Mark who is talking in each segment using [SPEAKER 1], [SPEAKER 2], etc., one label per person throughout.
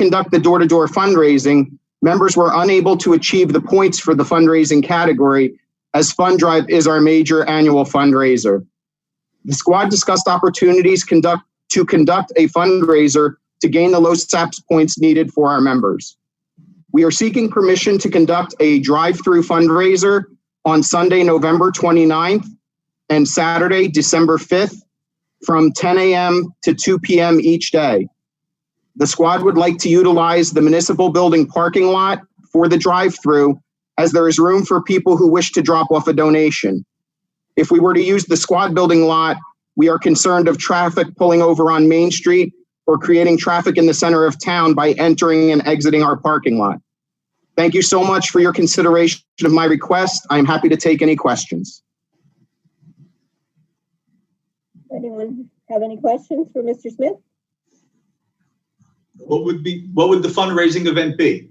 [SPEAKER 1] conduct the door-to-door fundraising, members were unable to achieve the points for the fundraising category as Fund Drive is our major annual fundraiser. The squad discussed opportunities conduct, to conduct a fundraiser to gain the LoSAPS points needed for our members. We are seeking permission to conduct a drive-through fundraiser on Sunday, November 29th and Saturday, December 5th from 10 a.m. to 2 p.m. each day. The squad would like to utilize the municipal building parking lot for the drive-through as there is room for people who wish to drop off a donation. If we were to use the squad building lot, we are concerned of traffic pulling over on Main Street or creating traffic in the center of town by entering and exiting our parking lot. Thank you so much for your consideration of my request. I'm happy to take any questions.
[SPEAKER 2] Anyone have any questions for Mr. Smith?
[SPEAKER 3] What would be, what would the fundraising event be?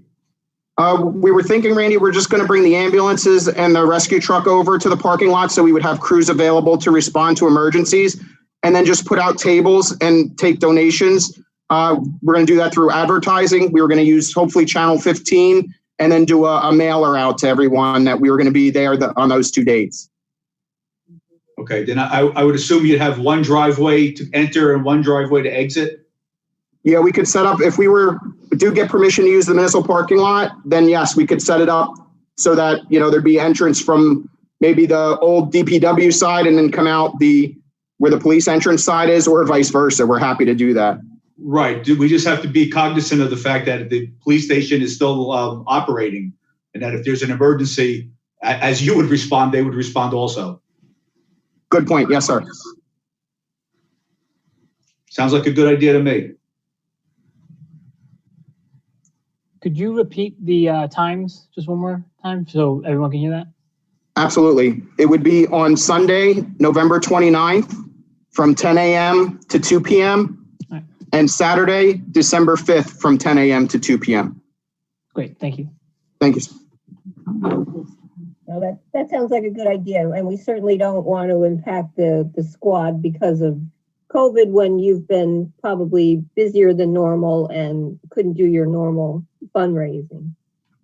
[SPEAKER 1] Uh, we were thinking, Randy, we're just going to bring the ambulances and the rescue truck over to the parking lot so we would have crews available to respond to emergencies and then just put out tables and take donations. Uh, we're going to do that through advertising. We were going to use hopefully Channel 15 and then do a, a mailer out to everyone that we were going to be there the, on those two dates.
[SPEAKER 3] Okay, then I, I would assume you'd have one driveway to enter and one driveway to exit.
[SPEAKER 1] Yeah, we could set up, if we were, do get permission to use the municipal parking lot, then yes, we could set it up so that, you know, there'd be entrance from maybe the old DPW side and then come out the, where the police entrance side is or vice versa. We're happy to do that.
[SPEAKER 3] Right, do we just have to be cognizant of the fact that the police station is still um, operating? And that if there's an emergency, a- as you would respond, they would respond also.
[SPEAKER 1] Good point. Yes, sir.
[SPEAKER 3] Sounds like a good idea to me.
[SPEAKER 4] Could you repeat the uh, times just one more time so everyone can hear that?
[SPEAKER 1] Absolutely. It would be on Sunday, November 29th from 10 a.m. to 2 p.m.
[SPEAKER 4] Right.
[SPEAKER 1] and Saturday, December 5th from 10 a.m. to 2 p.m.
[SPEAKER 4] Great, thank you.
[SPEAKER 1] Thank you. sir.
[SPEAKER 2] No, that, that sounds like a good idea, and we certainly don't want to impact the, the squad because of COVID when you've been probably busier than normal and couldn't do your normal fundraising.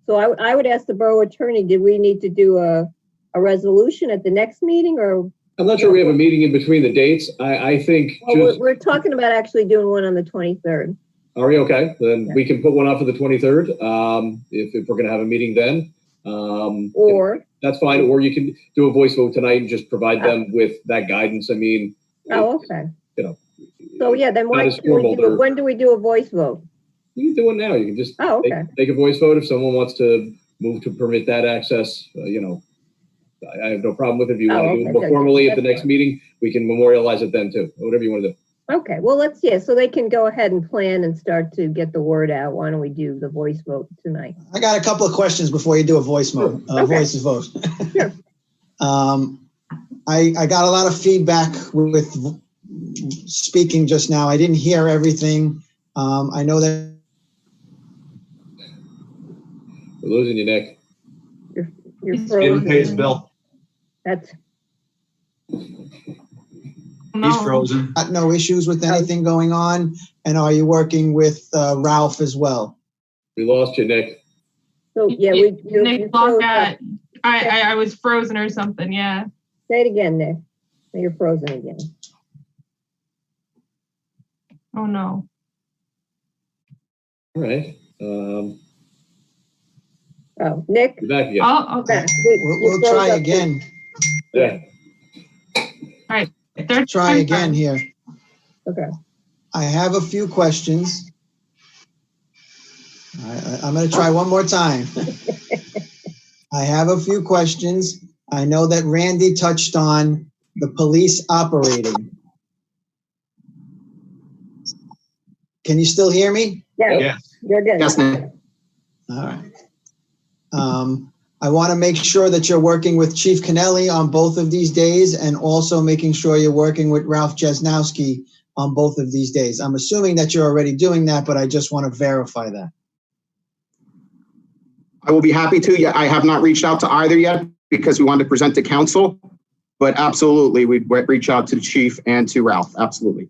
[SPEAKER 2] So I, would- I would ask the borough attorney, did we need to do a, a resolution at the next meeting or?
[SPEAKER 5] I'm not sure we have a meeting in between the dates. I, I think,
[SPEAKER 2] Well, we're,
[SPEAKER 5] just,
[SPEAKER 2] we're talking about actually doing one on the 23rd.
[SPEAKER 5] are we okay? Then we can put one off for the 23rd, um, if, if we're gonna have a meeting then. Um,
[SPEAKER 2] Or,
[SPEAKER 5] that's fine, or you can do a voice vote tonight and just provide them with that guidance. I mean.
[SPEAKER 2] oh, okay. So yeah, then
[SPEAKER 5] Not
[SPEAKER 2] why,
[SPEAKER 5] as
[SPEAKER 2] do we
[SPEAKER 5] formal,
[SPEAKER 2] do it-
[SPEAKER 5] they're-
[SPEAKER 2] when do we do a voice vote?
[SPEAKER 5] You can do it now. You can just
[SPEAKER 2] Oh,
[SPEAKER 5] take,
[SPEAKER 2] okay.
[SPEAKER 5] take a voice vote if someone wants to move to permit that access, uh, you know. I, I have no problem with it. If you
[SPEAKER 2] Oh,
[SPEAKER 5] want to do
[SPEAKER 2] okay,
[SPEAKER 5] it more
[SPEAKER 2] good.
[SPEAKER 5] formally at the
[SPEAKER 2] That's
[SPEAKER 5] next meeting, we can memorialize it then too, whatever you want to do.
[SPEAKER 2] Okay, well, let's, yeah, so they can go ahead and plan and start to get the word out. Why don't we do the voice vote tonight?
[SPEAKER 6] I got a couple of questions before you do a voice mode, uh,
[SPEAKER 2] Okay.
[SPEAKER 6] voice vote.
[SPEAKER 2] Sure.
[SPEAKER 6] Um, I, I got a lot of feedback with speaking just now. I didn't hear everything. Um, I know that
[SPEAKER 5] We're losing you, Nick.
[SPEAKER 2] You're
[SPEAKER 3] Didn't pay his
[SPEAKER 2] frozen.
[SPEAKER 3] bill,
[SPEAKER 2] That's,
[SPEAKER 3] he's frozen.
[SPEAKER 6] got no issues with anything going on. And are you working with uh, Ralph as well?
[SPEAKER 5] We lost you, Nick.
[SPEAKER 2] so, yeah, we. you- you
[SPEAKER 7] Nick
[SPEAKER 2] froze
[SPEAKER 7] logged
[SPEAKER 2] up.
[SPEAKER 7] out. I, I, I was frozen or something, yeah.
[SPEAKER 2] Say it again, Nick. Now You're frozen again.
[SPEAKER 7] Oh, no.
[SPEAKER 5] All right. Um,
[SPEAKER 2] Oh, Nick?
[SPEAKER 5] you're back again.
[SPEAKER 7] Oh, okay.
[SPEAKER 6] We'll, we'll try again.
[SPEAKER 5] Yeah.
[SPEAKER 6] Try
[SPEAKER 7] Third time's
[SPEAKER 6] again
[SPEAKER 7] up.
[SPEAKER 6] here.
[SPEAKER 2] Okay,
[SPEAKER 6] I have a few questions. I, I- I'm going to try one more time. I have a few questions. I know that Randy touched on the police operating. Can you still hear me?
[SPEAKER 2] yeah,
[SPEAKER 3] Yes,
[SPEAKER 2] you're good.
[SPEAKER 1] Yes, Nick.
[SPEAKER 6] All right. Um, I want to make sure that you're working with Chief Kennelly on both of these days and also making sure you're working with Ralph Jesnowski on both of these days. I'm assuming that you're already doing that, but I just want to verify that.
[SPEAKER 1] I will be happy to. Yeah, I have not reached out to either yet because we wanted to present to council. But absolutely, we'd re- reach out to the chief and to Ralph. Absolutely.